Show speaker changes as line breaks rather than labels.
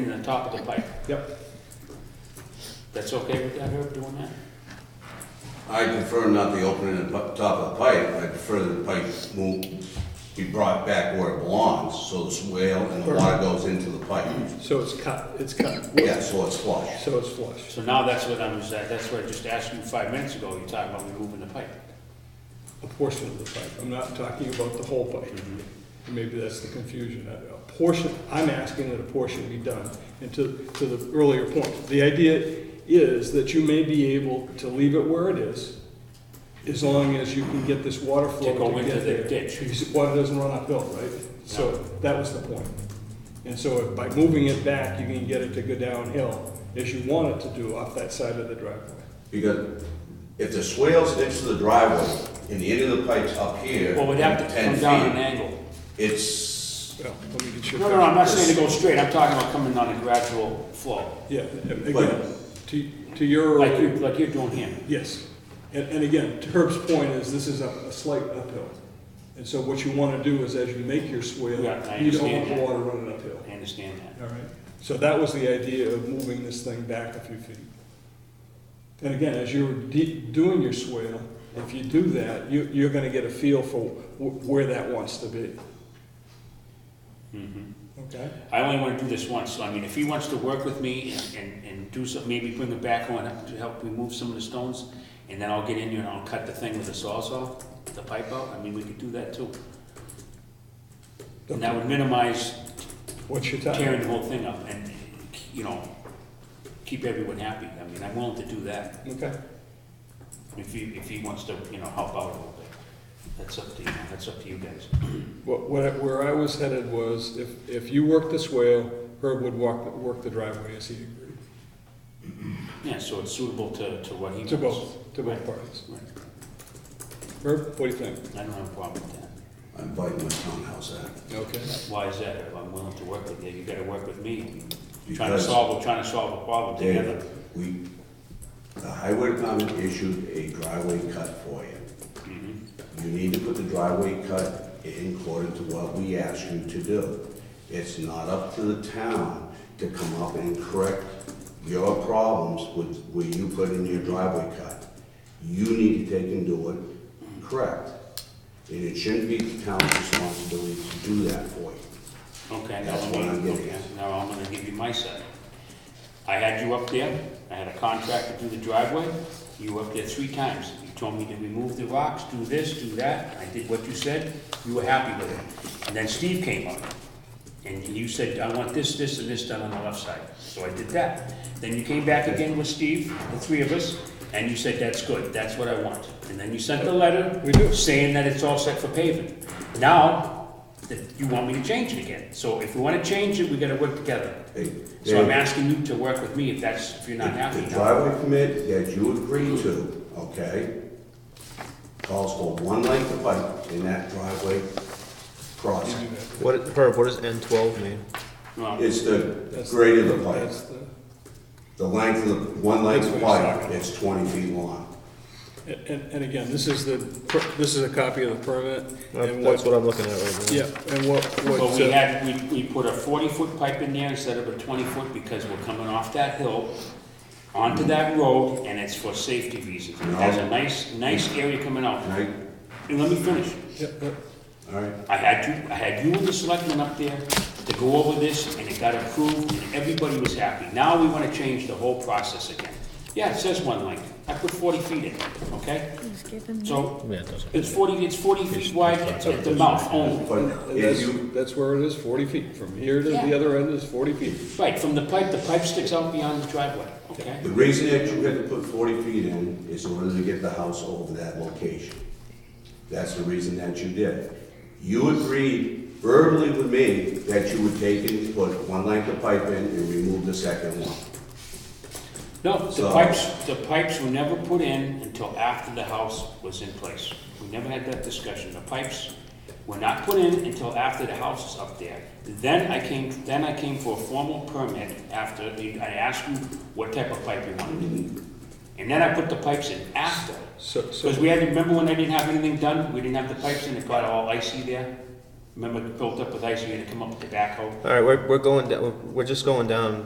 in the top of the pipe.
Yep.
That's okay with that, Herb, doing that?
I prefer not the opening at the pu- top of the pipe, I prefer the pipe will be brought back where it belongs, so the swale and the water goes into the pipe.
So it's cut, it's cut,
Yeah, so it's flush.
so it's flush.
So now that's what I was, at. that's what I just asked you five minutes ago, you're talking about removing the pipe.
A portion of the pipe, I'm not talking about the whole pipe.
Mm-hmm.
Maybe that's the confusion. A a portion, I'm asking that a portion be done. And to, to the earlier point, the idea is that you may be able to leave it where it is as long as you can get this water flow
To go
to
into
get
the
there.
ditch.
Because water doesn't run uphill, right? So that was the point. And so by moving it back, you can get it to go downhill as you want it to do off that side of the driveway.
Because if the swale's next to the driveway and the end of the pipe's up here.
Well, we'd have to
ten
come down
feet,
an angle.
It's,
Well, let me get your.
No, no, no, I'm not saying to go straight, I'm talking about coming on a gradual flow,
Yeah, again,
But-
to, to your,
like you, like you're doing here.
yes. And, and again, to Herb's point is this is a a slight uphill. And so what you want to do is as you make your swale,
Yeah, I
you don't want
understand
the
that.
water running uphill.
I understand that.
All right? So that was the idea of moving this thing back a few feet. And again, as you're de- doing your swale, if you do that, you, you're going to get a feel for wh- where that wants to be.
Mm-hmm.
Okay?
I only wanna do this once, so I mean, if he wants to work with me and, and, and do some, maybe bring a backhoe and help- to help remove some of the stones, and then I'll get in here and I'll cut the thing with the sawzall, the pipe out, I mean, we could do that too. And that would minimize
What's your time?
tearing the whole thing up and, you know, keep everyone happy. I mean, I'm willing to do that
Okay.
if he, if he wants to, you know, help out a little bit. That's up to you, that's up to you guys.
What, what, I- where I was headed was, if, if you worked this swale, Herb would walk, work the driveway as he agreed.
Yeah, so it's suitable to, to what he wants.
To both, to both parties.
Right.
Herb, what do you think?
I don't have a problem with that.
I'm biting my tongue, how's that?
Okay.
Why is that? If I'm willing to work with you, you gotta work with me. I mean, Trying to
Because-
solve, we're trying to solve a problem
David,
together.
we, the highway department issued a driveway cut for you.
Mhm.
You need to put the driveway cut in according to what we ask you to do. It's not up to the town to come up and correct your problems with where you put in your driveway cut. You need to take and do it correct. And it shouldn't be the town's responsibility to do that for you.
Okay, now
That's
let
what I'm
me,
getting
okay, now I'm gonna give you my side. I had you up there, I had a contractor do the driveway, you were up there three times. You told me to remove the rocks, do this, do that, I did what you said, you were happy with it. And then Steve came up, and you said, I want this, this, and this done on the left side, so I did that. Then you came back again with Steve, the three of us, and you said, that's good, that's what I want. And then you sent the letter.
We do.
Saying that it's all set for paving. Now, that you want me to change it again, so if we wanna change it, we gotta work together.
Hey,
So I'm
Dave.
asking you to work with me if that's, if you're not happy.
The driveway permit that you agreed to, okay, calls for one length of pipe in that driveway crossing.
What, Herb, what does N12 mean?
Well,
It's the grade of the pipe,
That's the-
the length of, the one length of
That's what he's
pipe,
talking
it's twenty feet long.
And, and again, this is the, per- this is a copy of the permit. and
That's what I'm looking at right now.
Yeah, and what,
But
what,
we
uh,
had, we, we put a forty-foot pipe in there instead of a twenty-foot because we're coming off that hill onto that road and it's for safety reasons. It has a nice, nice area coming out.
Right,
And let me finish.
yeah, but
all right,
I had you, I had you and the selectmen up there to go over this, and it got approved, and everybody was happy. Now we wanna change the whole process again. Yeah, it says one length, I put forty feet in, okay? So,
Yeah, it doesn't.
it's forty, it's forty feet wide at at the mouth only.
but if
that's,
you,
that's where it is, forty feet. From here to the
Yeah.
other end is forty feet.
Right, from the pipe, the pipe sticks out beyond the driveway, okay?
the reason that you had to put forty feet in is in order to get the house over that location. That's the reason that you did. You agreed verbally with me that you would take and put one length of pipe in and remove the second one.
No, the
So-
pipes, the pipes were never put in until after the house was in place. We never had that discussion. The pipes were not put in until after the house is up there. Then I came, then I came for a formal permit after, the- I asked you what type of pipe you wanted. And then I put the pipes in after.
So,
Because
so,
we had, remember when I didn't have anything done? We didn't have the pipes in, it got all icy there? Remember, it built up with ice, you had to come up with the backhoe?
All right, we're, we're going down, we're just going down